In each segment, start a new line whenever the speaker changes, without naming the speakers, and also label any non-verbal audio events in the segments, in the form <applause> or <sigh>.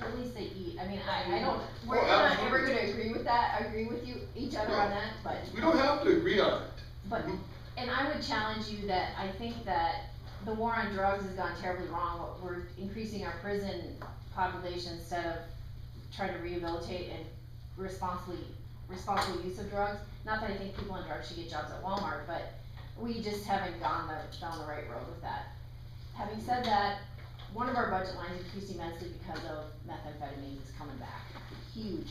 At least they eat, I mean, I, I don't, we're
Well,
not ever
absolutely.
gonna agree with that, I agree with you, each other on
No.
that, but,
We don't have to agree on it.
but, and I would challenge you that I think that the war on drugs has gone terribly wrong, What- we're increasing our prison population instead of trying to rehabilitate and responsibly, responsible use of drugs. Not that I think people in drugs should get jobs at Walmart, but we just haven't gone the, down the right road with that. Having said that, one of our budget lines increased immensely because of methamphetamines is coming back, huge.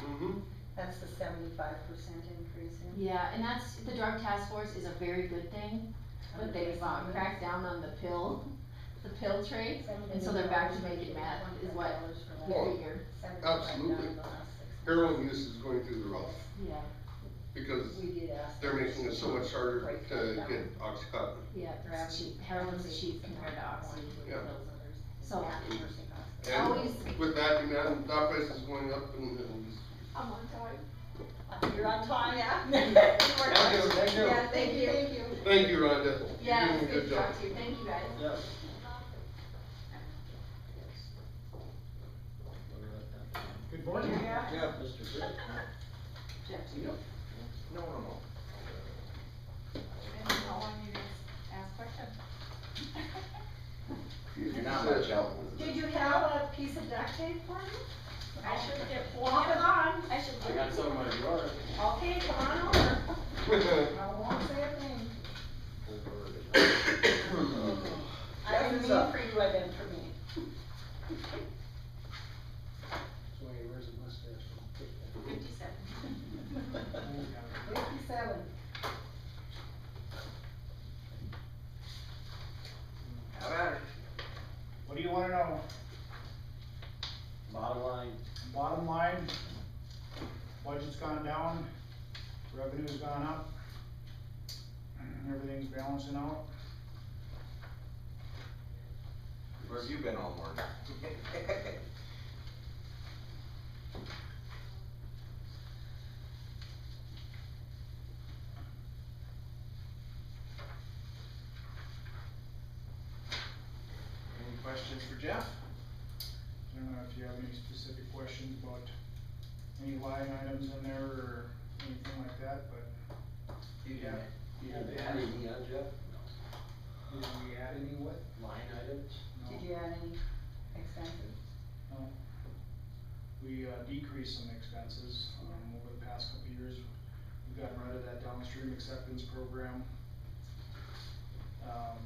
Mhm.
That's the seventy-five percent increase in.
Yeah, and that's, the drug task force is a very good thing, but they've uh, cracked down on the pill, the pill trade, and so they're back to making meth, is what we
Well,
figure,
absolutely. Heroin use is going through the roof
yeah,
because
We did ask.
they're making it so much harder
Right.
to get Oxycontin.
yeah, it's cheap, heroin's cheap compared to oxy.
Yeah.
So-
And
Always-
with that, you know, that price is going up and, and
I'm on time.
Uh, You're on time, yeah? <laughs>
Thank you, thank you.
Yeah, thank you. Thank you.
Thank you, Rhonda. You're
Yeah,
doing a
it's good to
job.
talk to you, thank you guys.
Good morning.
Yeah.
Mr. Britt.
Jeff,
Yep. No, no, no.
ask questions.
You're not much
<coughs>
help with
Did you have a piece of duct tape for me?
I should get four.
Pop it on.
I should
I got some of yours.
Okay, come on over. I won't say a thing. I
Jeff
didn't
is
mean
up.
for you, I meant for me.
Fifty-seven.
<laughs> Fifty-seven.
How about it?
What do you wanna know?
Bottom line,
Bottom line, budget's gone down, revenue's gone up, everything's balancing out.
where have you been all morning? <laughs> Any questions for Jeff?
I don't know if you have any specific questions about any line items in there or anything like that, but
You
Yeah.
Did you add any, uh, Jeff?
did we add any what?
Line items?
Did
No,
you add any expenses?
no. We uh, decreased some expenses, um, over the past couple of years. We've gotten rid of that downstream acceptance program. Um,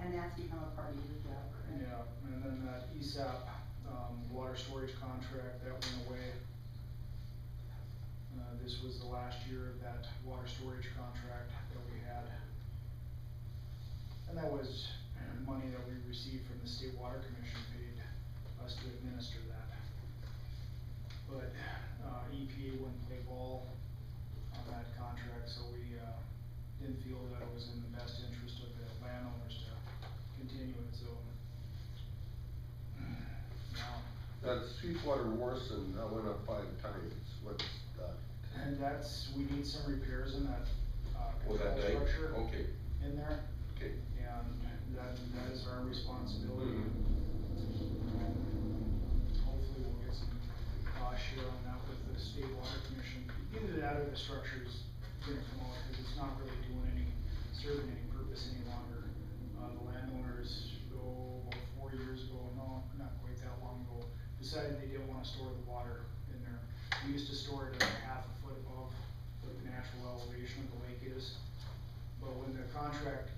And that's become a part of your job, correct?
Yeah, and then that E ESAP, um, water storage contract, that went away. Uh, this was the last year of that water storage contract that we had. And that was money that we received from the state water commission paid us to administer that. But, uh, EPA wouldn't play ball on that contract, so we, uh, didn't feel that it was in the best interest of the landowners to continue it, so. Now,
That Sweetwater Warson, that went up five times, what's that?
and that's, we need some repairs in that, uh,
Was
control
that day?
structure
Okay,
in there,
okay.
and that, that is our
Mm-hmm.
responsibility. Hopefully we'll get some, uh, share on that with the state water commission, either that or the structure's gonna come out, cause it's not really doing any, serving any purpose any longer. Uh, the landowners, oh, about four years ago, no, not quite that long ago, decided they didn't wanna store the water in there. We used to store it at a half a foot above what the natural elevation of the lake is. But when the contract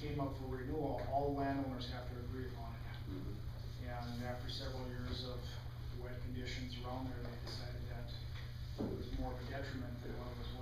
came up for renewal, all landowners have to agree upon it.
Mm-hmm.
And after several years of wet conditions around there, they decided that it was more of a detriment than what it was